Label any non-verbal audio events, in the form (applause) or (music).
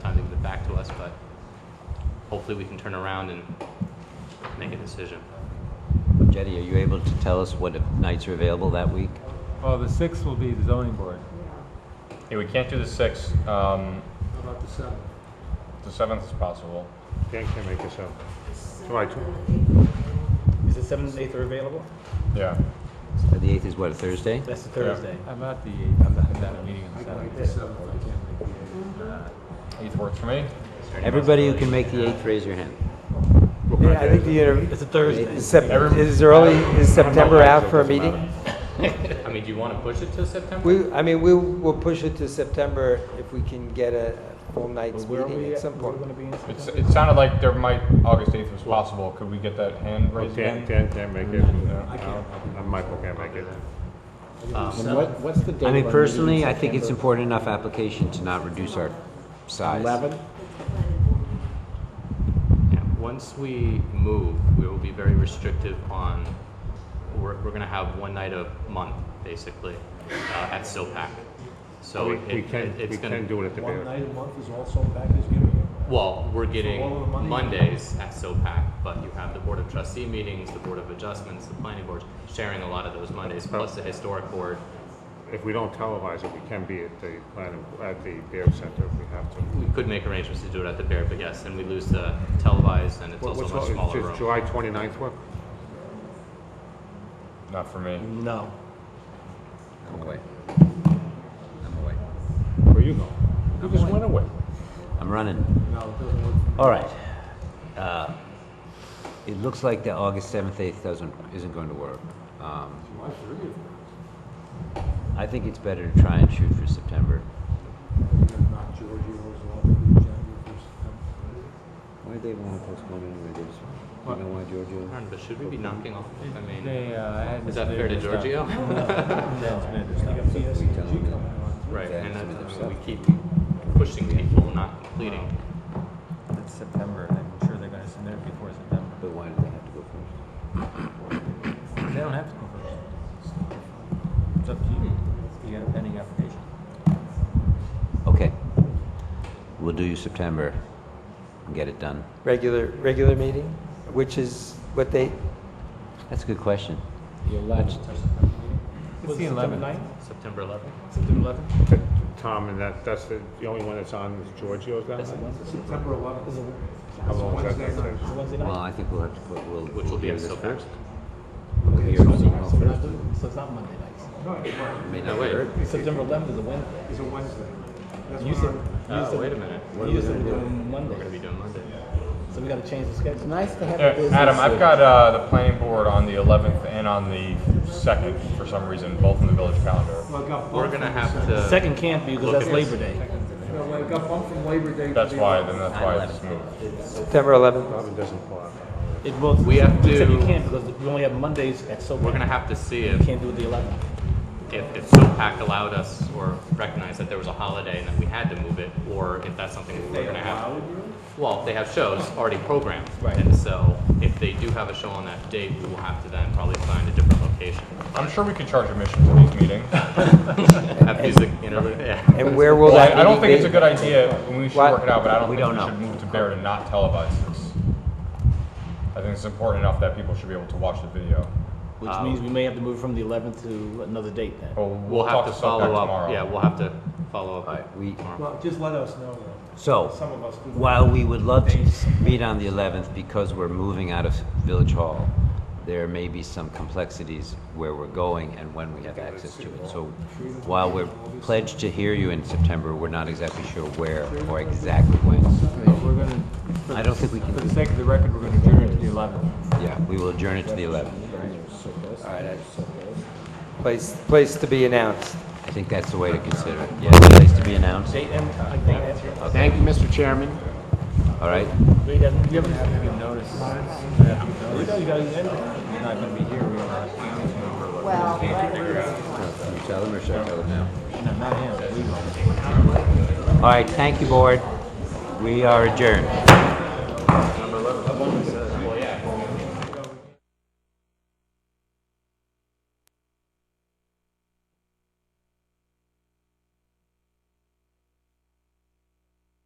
hopefully we can turn around and make a decision. Jetty, are you able to tell us what nights are available that week? Well, the sixth will be the zoning board. Yeah, we can't do the sixth. Um, How about the seventh? the seventh is possible. Can't, can't make this up. July tw- Is the seventh and eighth are available? Yeah. Uh, The 8th is what, a Thursday? That's the Thursday. How about the eighth? I'm not at a meeting on I the can make seventh. the seventh, I can't make the eighth. Eighth works for me. Everybody who can make the 8th, raise your hand. Yeah, I think the, inter- It's a Thursday. is Sep- Every- is early, is September out for a Doesn't meeting? matter. I mean, do you want to push it to September? We, I mean, we will push it to September if we can get Uh, a full night's Where are meeting we at at? some We're point. gonna be in It's, it sounded like there might August eighth was possible. Could we get that hand Well, raised Oh, Dan, again? Dan can't make it. Mm-hmm. No, no, Michael can't make it. Um, What, what's the date? I of our meeting mean, in personally, I think it's September? important enough application to not reduce our size. Eleven? yeah, Once we move, we will be very restrictive on, we're, we're gonna have one night a month, basically, uh, at SILPAC. So We, it, we can, it- we it's can gonna, do it at the One beginning. night a month is also back is giving. well, we're getting all of the money- Mondays at SILPAC, but you have the Board of Trustee meetings, the Board of Adjustments, the Planning Board, sharing a lot of those Mondays, plus the Historic Board. If we don't televise it, we can be at the planning, at the Bear Center if we have to. We could make arrangements to do it at the Bear, but yes, then we lose the televised, and it's What- also What's a much all- smaller does room. July twenty-ninth work? Not for me. Mm-hmm. No. I'm away. I'm away. Where you going? You just went away. I'm running. No, it doesn't work. All right. Uh, It looks like the August 7th, 8th doesn't, isn't going to work. Um, July thirtieth. I think it's better to try and shoot for September. Not Giorgio's off the agenda for September. Why they want to postpone anyway? They just, you know why, Giorgio? Aaron, but should we be knocking off? I mean, They, uh, I had is that fair to this other Giorgio? stuff. (laughs) E Right, and that's, I mean, we keep pushing people, not completing. It's September, and I'm sure they're gonna submit it before September. But why do they have to go first? They don't have to go first. It's up to you. You got a pending application. Okay. We'll do you September and get it done. Regular, regular meeting, which is what they, That's a good question. The eleventh. It's the eleventh. September 11th? September eleventh? Tom, and that, that's the, the only one that's on is Giorgio's that night? September eleventh. How long is that, Wednesday that? night. Wednesday Well, I think we'll have to put, we'll. Which will be hear at this Silver. first. Okay, so so we're not doing- so it's not Monday nights. No, it's It right. may No, not be wait. heard. September eleventh is a Wednesday. It's a Wednesday. That's You when said, our- Uh, you said. wait a minute. You said we're doing We're gonna be Monday, doing Monday. so we gotta change the schedule. Nice to have Adam, I've got uh, the planning board on the eleventh and on the second for some reason, both in the village calendar. Well, I got We're bumped gonna from have Sep- to. Second can't be because Look that's at this. Labor Day. No, well, I got bumped from Labor Day. to That's the why. 11th. Then that's why it's moved. September 11th. Robin doesn't pull out. It will. We have Except to- you can't because we only have Mondays at SOPAC. We're gonna have to see You if, can't do it the eleventh. if, if SOPAC allowed us or recognized that there was a holiday and that we had to move it, or if that's something we're gonna have. Well, they have shows already programmed. Right. And so if they do have a show on that date, we will have to then probably find a different location. I'm sure we could charge admission to these meetings. Have music, you know, (laughs) yeah. And where will Well, that I, I meeting don't be? think it's a good idea, and we should Why- work it out, but I don't we think don't we know. should move to Bear to not televise this. I think it's important enough that people should be able to watch the video. Which Oh. means we may have to move from the 11th to another date then. Well, We'll have talk to Sokak follow up, tomorrow. yeah, we'll have to follow All up. right, we, Well, just let us know, though. so, Some of us do. while we would love to meet on the 11th because we're moving out of Village Hall, there may be some complexities where we're going and when we have access to it. So while we're pledged to hear you in September, we're not exactly sure where or exactly when. We're gonna, for I the- don't think we can. for the sake of the record, we're gonna adjourn it to the eleventh. Yeah, we will adjourn it to the 11th. Place, place to be announced. I think that's the way to consider it. Yeah, place to be announced. Date and, I think that's it. Thank you, Mr. Chairman. All right. We haven't, you haven't given notice. You guys got it. You're not gonna be here, we are. Can you tell them or should I tell them now? No, not him, we will. All right, thank you, board. We are adjourned.